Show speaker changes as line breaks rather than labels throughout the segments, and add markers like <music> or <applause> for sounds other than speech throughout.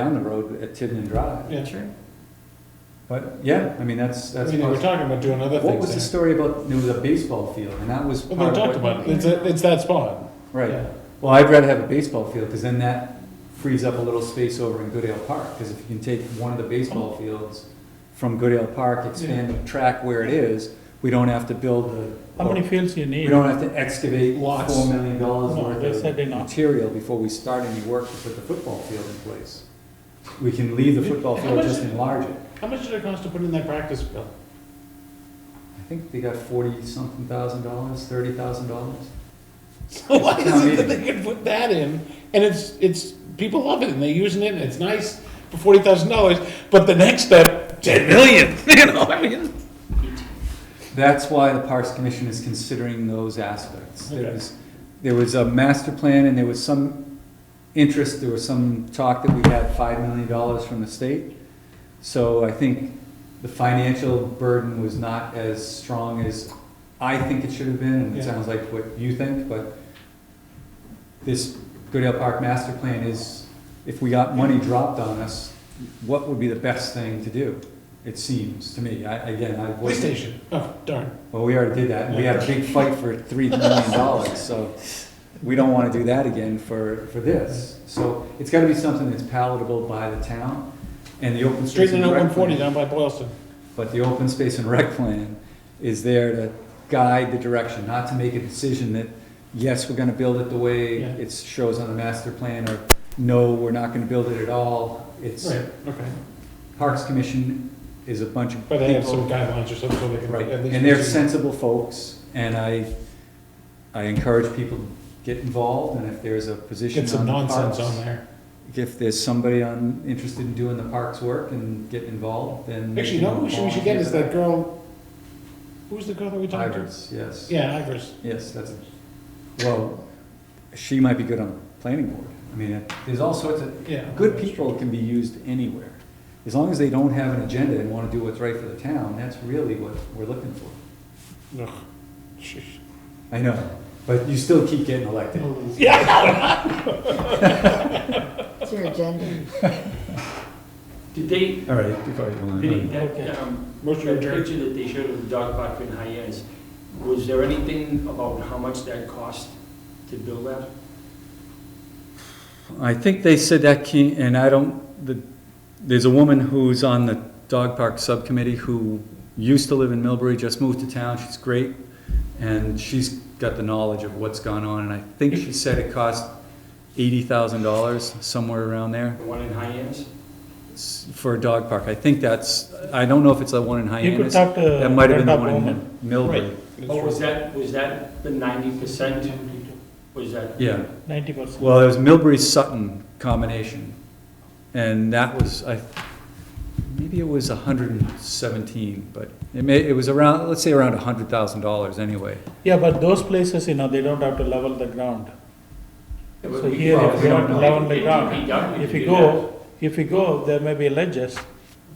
down the road at Tibnan Drive.
Yeah.
Sure.
But, yeah, I mean, that's,
I
that's.
mean, they were
possible.
talking about doing other
What was the
things there.
story about, there was a baseball field, and that was
Well,
part
they talked
of
about,
what.
it. it's, a- it's that spot.
Right,
Yeah.
well, I'd rather have a baseball field, because then that frees up a little space over in Goodale Park, because if you can take one of the baseball fields from Goodale Park, expand the track where it is, we don't have to build the.
How many fields you
We
need?
don't have to excavate
Lots.
four million dollars
No, they
worth
said
of
enough.
material before we start any work to put the football field in place. We can leave the football
How
field,
much-
just enlarge it.
How much did it cost to put in that practice field? <laughs>
I think they got forty something thousand dollars, thirty thousand dollars.
Why
town
is it
meeting.
that they could put that in? And it's, it's, people love it and they're using it and it's nice for forty thousand dollars, but the next step, ten million, <laughs> you know, I mean.
That's why the Parks Commission is considering those aspects. There
Okay.
was, there was a master plan and there was some interest, there was some talk that we had five million dollars from the state. So I think the financial burden was not as strong as I think it should have been, and it
Yeah.
sounds like what you think, but this Goodale Park master plan is, if we got money dropped on us, what would be the best thing to do? It seems to me, I, again, I
Police
wasn't
station, oh darn.
well, we already did that, and we had a big fight for three million dollars, so we don't wanna do that again for, for this. So it's gotta be something that's palatable by the town, and the open space
Straighten
and
out one
rec
forty
plan.
down by Boylston.
But the open space and rec plan is there to guide the direction, not to make a decision that, yes, we're gonna build it the way
Yeah.
it shows on the master plan, or no, we're not gonna build it at all. It's,
Right, okay.
Parks Commission is a bunch of
But they have some
people
guidelines or something so they can.
Right,
at least
and they're
proceed.
sensible folks, and I, I encourage people to get involved, and if there's a position
Get some
on the
nonsense on
parks.
there.
If there's somebody on, interested in doing the parks work and getting involved, then. they
Actually, you
can
know who we should- we should get is
volunteer
that girl, who's the girl that we
for that.
talked to?
Ivers, yes.
Yeah, Ivers.
Yes, that's, well, she might be good on the planning board. I mean, it- there's all sorts of,
Yeah.
good people can be used anywhere. As long as they don't have an agenda and wanna do what's right for the town, that's really what we're looking for.
Ugh. Sheesh.
I know, but you still keep getting elected.
Oh.
It's your agenda.
Did they,
All right, before you go on.
Vinnie, that, um,
Motion
that
adjourned.
picture that they showed of the dog park in Hyannis, was there anything about how much that cost to build that?
I think they said that key, and I don't, the, there's a woman who's on the dog park subcommittee who used to live in Millbury, just moved to town, she's great, and she's got the knowledge of what's gone on, and I think she said it cost eighty thousand dollars, somewhere around there,
The one in Hyannis?
s- for a dog park. I think that's, I don't know if it's the one in
You could
Hyannis.
talk to.
That might have been the
Brenda
one
Bowman.
in Millbury.
Or was that, was that the ninety percent? Was that?
Yeah.
Ninety percent.
Well, it was Milbury Sutton combination, and that was, I, maybe it was hundred and seventeen, but it may, it was around, let's say around hundred thousand dollars anyway.
Yeah, but those places, you know, they don't have to level the ground. So here,
well,
if
we
you
don't
don't
know.
level the
It can be done,
ground,
we
if
can
you
do
go, if you go, there may be ledges.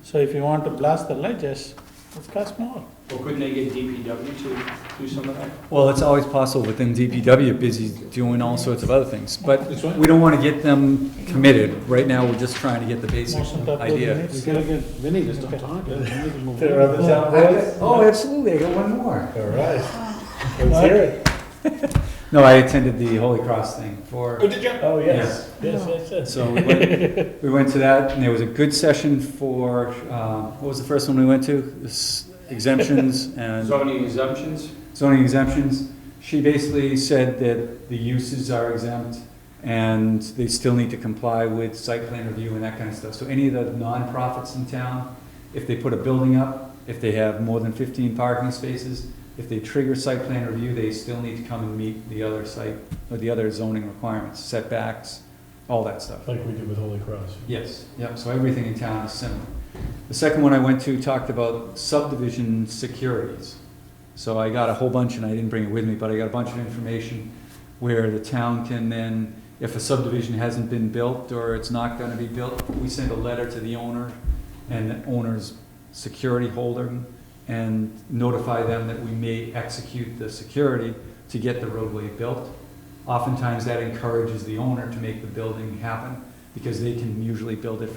So if you want to blast the ledges, it costs more.
Or couldn't they get DPW to do some of that?
Well, it's always possible within DPW, busy doing all sorts of other things, but
This one?
we don't wanna get them committed. Right now, we're just trying to get the basic
Most of the
idea.
units-
We gotta get Vinny to stop talking. We need to
<laughs>
move
There are
on.
other town boys?
Oh, absolutely, I got one more.
All right. Let's hear it.
<laughs> No, I attended the Holy Cross thing for.
Oh, did you?
Oh, yes, yes, yes, yes.
So we went, we went to that, and there was a good session for, um, what was the first one we went to? This Exemptions and
Zoning exemptions?
zoning exemptions. She basically said that the uses are exempt, and they still need to comply with site plan review and that kind of stuff. So any of the nonprofits in town, if they put a building up, if they have more than fifteen parking spaces, if they trigger site plan review, they still need to come and meet the other site, or the other zoning requirements, setbacks, all that stuff.
Like we did with Holy Cross.
Yes, yep, so everything in town is similar. The second one I went to talked about subdivision securities. So I got a whole bunch, and I didn't bring it with me, but I got a bunch of information where the town can then, if a subdivision hasn't been built or it's not gonna be built, we send a letter to the owner and the owner's security holder and notify them that we may execute the security to get the roadway built. Oftentimes, that encourages the owner to make the building happen because they can usually build it